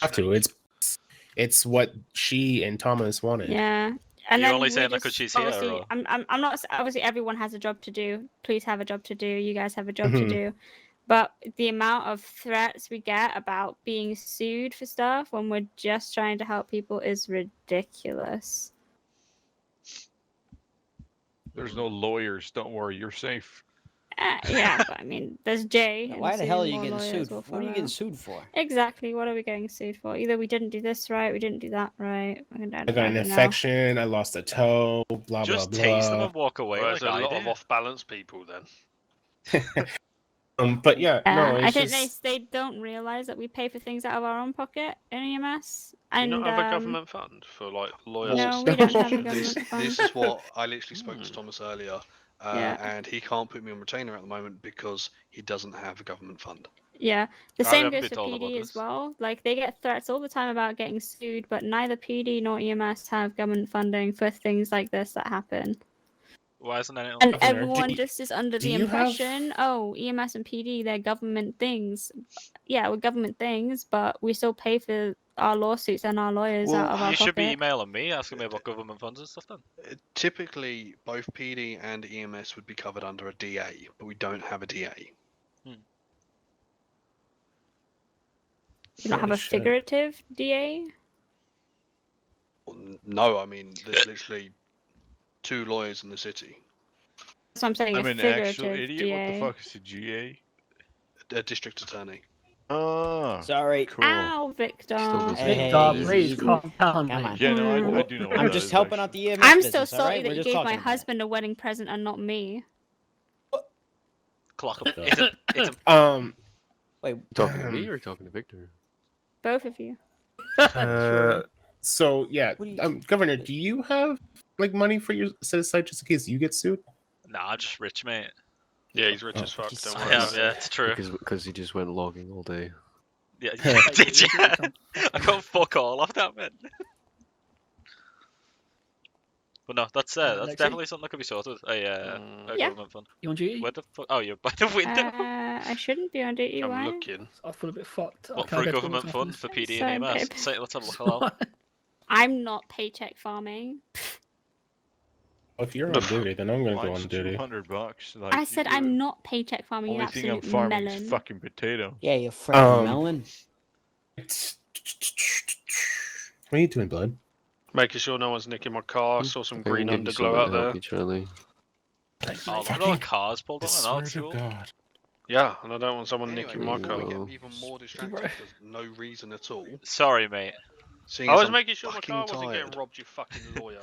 have to. It's it's what she and Thomas wanted. Yeah. You're then only we saying that 'cause just- she's here, obviously- or- I'm, I'm, I'm not. s- Obviously, everyone has a job to do. Please have a job to do. You guys have a job Mm-hmm. Mhm. to do. But the amount of threats we get about being sued for stuff when we're just trying to help people is ridiculous. There's no lawyers. Don't worry, you're safe. Uh, yeah, but I mean, there's Jay. and Why the soon hell are you more getting lawyers sued? will What are you follow. getting sued for? Exactly. What are we getting sued for? Either we didn't do this right, we didn't do that right. I don't- I I got an don't know. infection. I lost a toe. Blah Just blah tase them blah. and walk away. Well, like there's a I lot did. of off balance people then. Um, but yeah, Uh, no, it's I think just, they, they don't realize that we pay for things out of our own pocket in EMS. Do you And not have a um, government fund for like lawyers? and no, stuff? we don't have a This- this, government fund. this is what I literally spoke to Hmm. Thomas earlier, uh, Yeah. and he can't put me on retainer at the moment because he doesn't have a government fund. Yeah, the I same haven't goes for been told about PD as this. well. Like they get threats all the time about getting sued, but neither PD nor EMS have government funding for things like this that happen. Why isn't anyone? And Governor, do everyone you- just is under do the you have- impression, oh, EMS and PD, they're government things. Yeah, we're government things, but we still pay for our lawsuits and our lawyers Well, out of our you should be pocket. emailing me asking me about government funds and stuff. Then Uh, Typically, both PD and EMS would be covered under a DA, but we don't have a DA. You don't have a Holy shit. figurative DA. Well, n- No, I mean there's literally two lawyers in the city. That's what I'm saying. I'm a an figurative actual idiot. DA. What the fuck is a GA? A district attorney. Ah, Sorry. cool. Ow, Victor. doesn't Hey, Big dog, easy, please easy. calm down. Come on. mate. Yeah, Hmm. no, I, I Well, do know. what I'm that just is, helping out actually. the EMS I'm so business, all sorry right? We're that you just gave my talking about it. husband a wedding present and not me. clock up. It's a, it's a, um, Wait, Talking to me or talking to Victor? Both of you. uh, so yeah, What do you- um, Governor, do you have like money for your set aside just in case you get sued? nah, just rich, mate. Yeah, he's rich Oh, as fuck. Jesus Don't I worry. am, about it. yeah, it's true. Because because he just went logging all day. Yeah, yeah, did you? I got fuck all off that man. But no, that's uh, that's Alexei? definitely something that could be sorted. A, uh, Mm. a Yeah. government fund. You E? on duty? Where the fuck? Oh, you're by the window. Uh, I shouldn't be on duty. I'm Why? looking. I feel a bit fucked. I what can't for a go to the government fund for PD and Sorry, EMS? babe. Say, let's have a look. Hello. I'm not paycheck farming. Well, if you're on duty, then I'm gonna go Mine's on duty. 200 bucks. Like, I said I'm not paycheck The farming. You only thing I'm absolute farming melon. is fucking potato. yeah, you freaking Um, melon. What are you doing, blood? Making sure no one's nicking my car. I saw some Maybe we green can get you underglow something out to help there. Each other. Oh, look at all the Fucking- cars pulled I on. swear That's to cool. God. Yeah, and I don't want someone Anyway, you we my get car. even more distracted for no reason at all. Sorry, mate. Seeing I as was I'm making sure my fucking car wasn't tired. getting robbed, you fucking lawyer.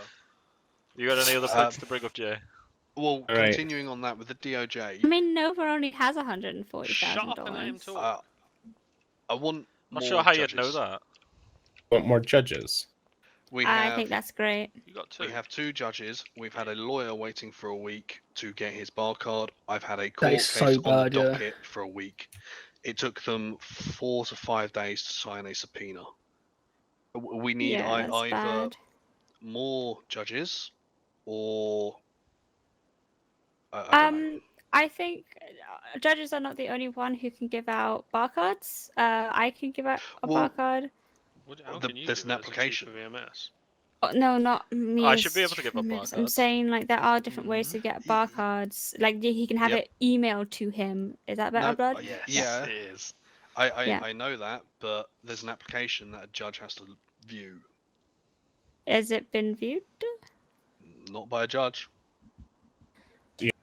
You got any other Uh, points to bring up, Jay? Well, All right. continuing on that with the DOJ, I mean, Nova only has hundred and forty Shut thousand up and let him dollars. talk. uh, I want. Not more sure how judges. you'd know that. Want more judges? We I have, think that's great. You got two. we have two judges. We've had a lawyer waiting for a week to get his bar card. I've had a court is case so on bad, the yeah. docket for a week. It took them four to five days to sign a subpoena. W- We need yeah, ei- that's either bad. more judges or I, I don't know. Um, I think uh, judges are not the only one who can give out barcodes. Uh, I can give out a Well, barcode. What- how the- can you there's do an that as a chief application. of Oh, no, not me. I as should be able to give a human, barcode. I'm saying like there are different ways to get Mm-hmm. barcodes. Like y- he can have Yep. it emailed to him. Is that better, No, blood? uh, yes, Yeah. it is. I, I, Yeah. I know that, but there's an application that a judge has to view, Has it been viewed? not by a judge.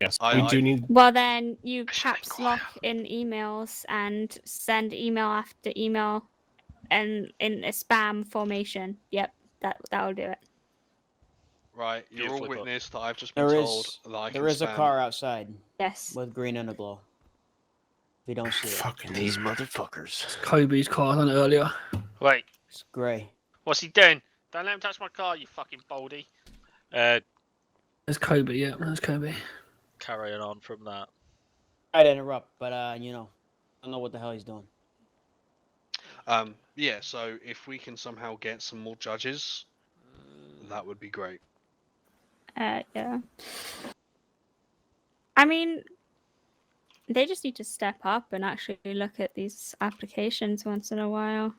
Yes, I- we I- do need. Well, then you I should be caps quiet. lock in emails and send email after email, and in a spam formation. Yep, that that'll do it. Right, you're all Beautifully put. witness that I've just been There told is, that I can there is a spam. car outside Yes. with green underglow. If you don't see it, Fucking These motherfuckers. Kobe's car on earlier. Wait, it's grey. what's he doing? Don't let him touch my car, you fucking baldy. Uh, There's Kobe, yeah, there's Kobe. carrying on from that. I'd interrupt, but uh, you know, I don't know what the hell he's doing. Um, yeah, so if we can somehow get some more judges, that would be great. Uh, yeah. I mean, they just need to step up and actually look at these applications once in a while.